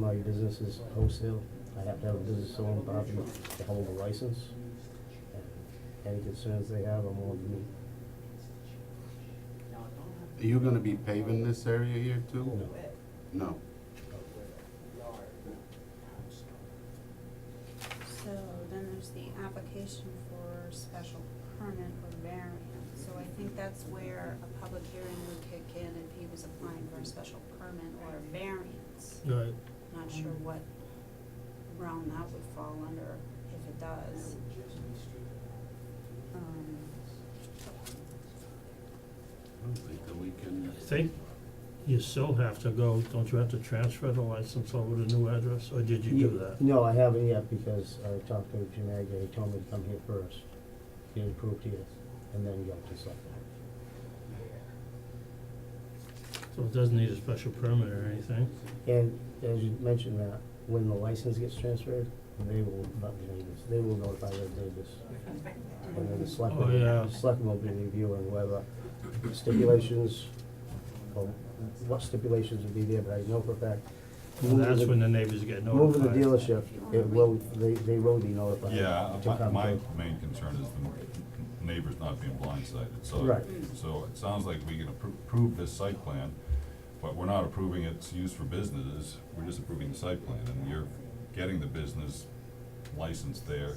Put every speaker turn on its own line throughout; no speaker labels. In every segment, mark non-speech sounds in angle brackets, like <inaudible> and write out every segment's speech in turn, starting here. now your business is wholesale, I have to have a business owned property to hold a license. And Any concerns they have, I'm all you.
Are you gonna be paving this area here too?
No.
No.
So then there's the application for special permit or variance. So I think that's where a public hearing would kick in if he was applying for a special permit or a variance.
Right.
Not sure what realm that would fall under, if it does. Um,
I don't think that we can,
I think you still have to go, don't you have to transfer the license over to new address, or did you do that?
No, I haven't yet because I talked to Jim Agger, he told me to come here first, get approved here, and then go to something.
So it doesn't need a special permit or anything?
And as you mentioned that, when the license gets transferred, they will, not the neighbors, they will notify their neighbors. And then the
Oh, yeah.
selectmen, selectmen will be reviewing whether stipulations, or what stipulations would be there, but I know for a fact.
And that's when the neighbors get
Moving
notified.
the dealership, it will, they, they will be notified.
Yeah,
to
my,
come
my
to-
main concern is the neighbors not being blindsided, so.
Right.
So it sounds like we can appro- approve this site plan, but we're not approving its use for businesses, we're just approving the site plan, and you're getting the business license there.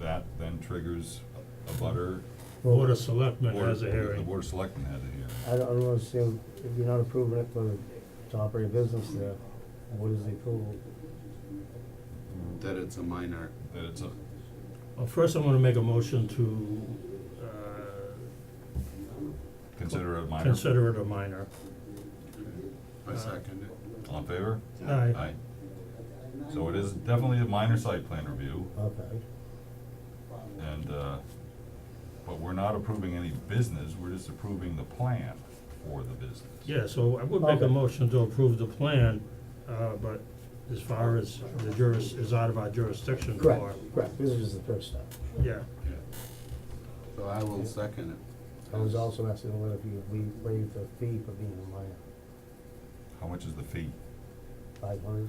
That then triggers a butter.
Board of Selectmen
Board-
has a
The
hearing.
board of selectmen had a hearing.
I don't, I don't understand, if you're not approving it for, to operate a business there, what is the approval?
that it's a minor,
that it's a,
Well, first I'm gonna make a motion to, uh,
consider a minor.
consider it a minor.
I second it.
All in favor?
Aye.
Aye. So it is definitely a minor site plan review,
Okay,
and, uh, but we're not approving any business, we're just approving the plan for the business.
Yeah, so I would make a
Okay.
motion to approve the plan, uh, but as far as the juris, is out of our jurisdiction for.
correct, correct, this is the first step.
Yeah,
So I will second it.
I was also asking whether if you we waive the fee for being a minor,
How much is the fee?
five hundred.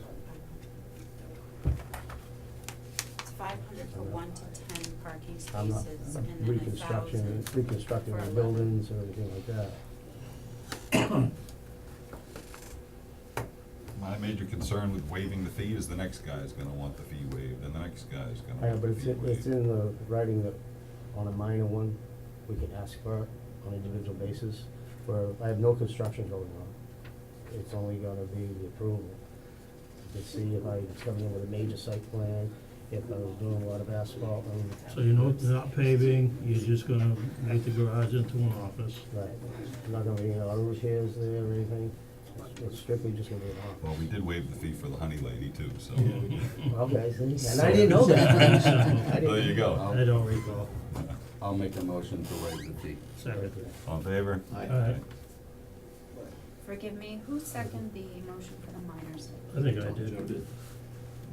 It's five hundred for one to ten parking
I'm not
spaces and then a
reconstruction,
thousand.
reconstructing
for
the
11.
buildings or anything like that.
My major concern with waiving the fee is the next guy is gonna want the fee waived, and the next guy is
I
gonna
know,
want
but
the
it's,
fee
in- it's
waived.
in the writing that on a minor one, we can ask for it on an individual basis, where I have no construction going on. It's only gonna be the approval. To see if I was coming in with a major site plan, if I was doing a lot of asphalt and,
so you know, you're not paving, you're just gonna make the garage into an office.
right, not gonna be any auto repairs there or anything. It's- It's strictly just gonna be an office.
Well, we did waive the fee for the honey lady too, so.
Okay, see, and I didn't know
<laughs>
that. <laughs> I didn't-
There you go.
I don't recall,
I'll make a motion to waive the fee.
second.
<laughs> All in favor?
Aye.
Forgive me, who seconded the motion for the minors?
I think I did.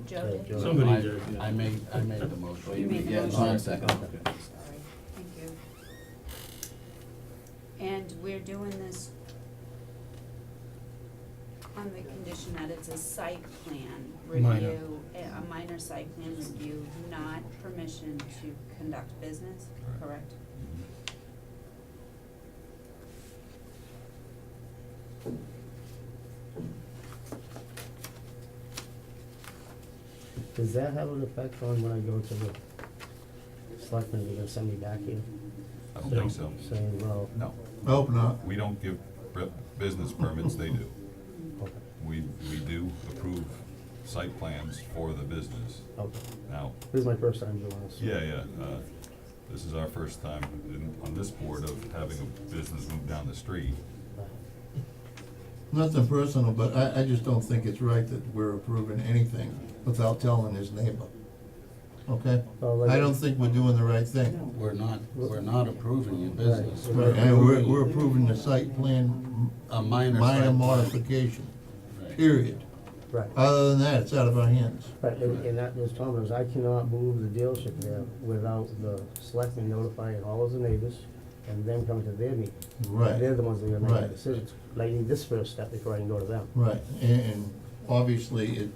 Joe
Yeah,
did?
Joe.
Somebody
I-
did, yeah.
I made, I made the motion.
You made the
Yeah, no,
motion.
I second it.
Sorry, thank you. And we're doing this on the condition that it's a site plan
Minor.
review, a a minor site plan review, not permission to conduct business, correct?
Correct.
Does that have an effect on when I go to the selectmen, they're gonna send me back here
I don't think so.
saying, well,
No,
Hope not.
we don't give re- business permits, they do.
okay,
We, we do approve site plans for the business.
okay.
Now,
This is my first time doing this.
yeah, yeah, uh, this is our first time in, on this board of having a business move down the street.
Nothing personal, but I, I just don't think it's right that we're approving anything without telling his neighbor. Okay?
Well, Oh, like-
I don't think we're doing the right thing.
We're not, we're not approving your business.
Right.
We're- And we're, we're approving the site plan,
A minor site.
minor
plan.
modification,
Right.
period.
Right,
Other than that, it's out of our hands.
right, and, and that was Tom, was I cannot move the dealership there without the selectmen notifying all of the neighbors and them coming to their meeting.
Right,
They're the ones that are gonna make the
Right.
decisions, but I need this first step before I can go to them.
right, and, and obviously, it,